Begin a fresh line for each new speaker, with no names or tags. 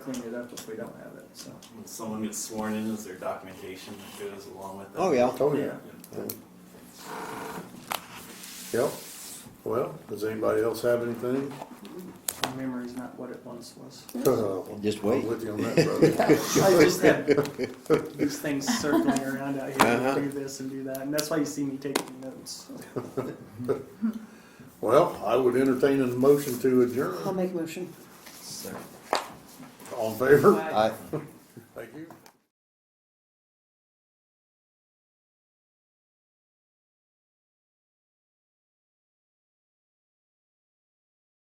clean it up if we don't have it, so.
When someone gets sworn in, is there documentation that goes along with that?
Oh, yeah.
Oh, yeah.
Yeah.
Yep. Well, does anybody else have anything?
My memory's not what it once was.
Uh, Just
I'm
wait.
with you on that, brother.
I just have these things circling around out here,
Uh-huh.
do this and do that, and that's why you see me taking notes.
Well, I would entertain a motion to adjourn.
I'll make a motion.
All in favor?
I,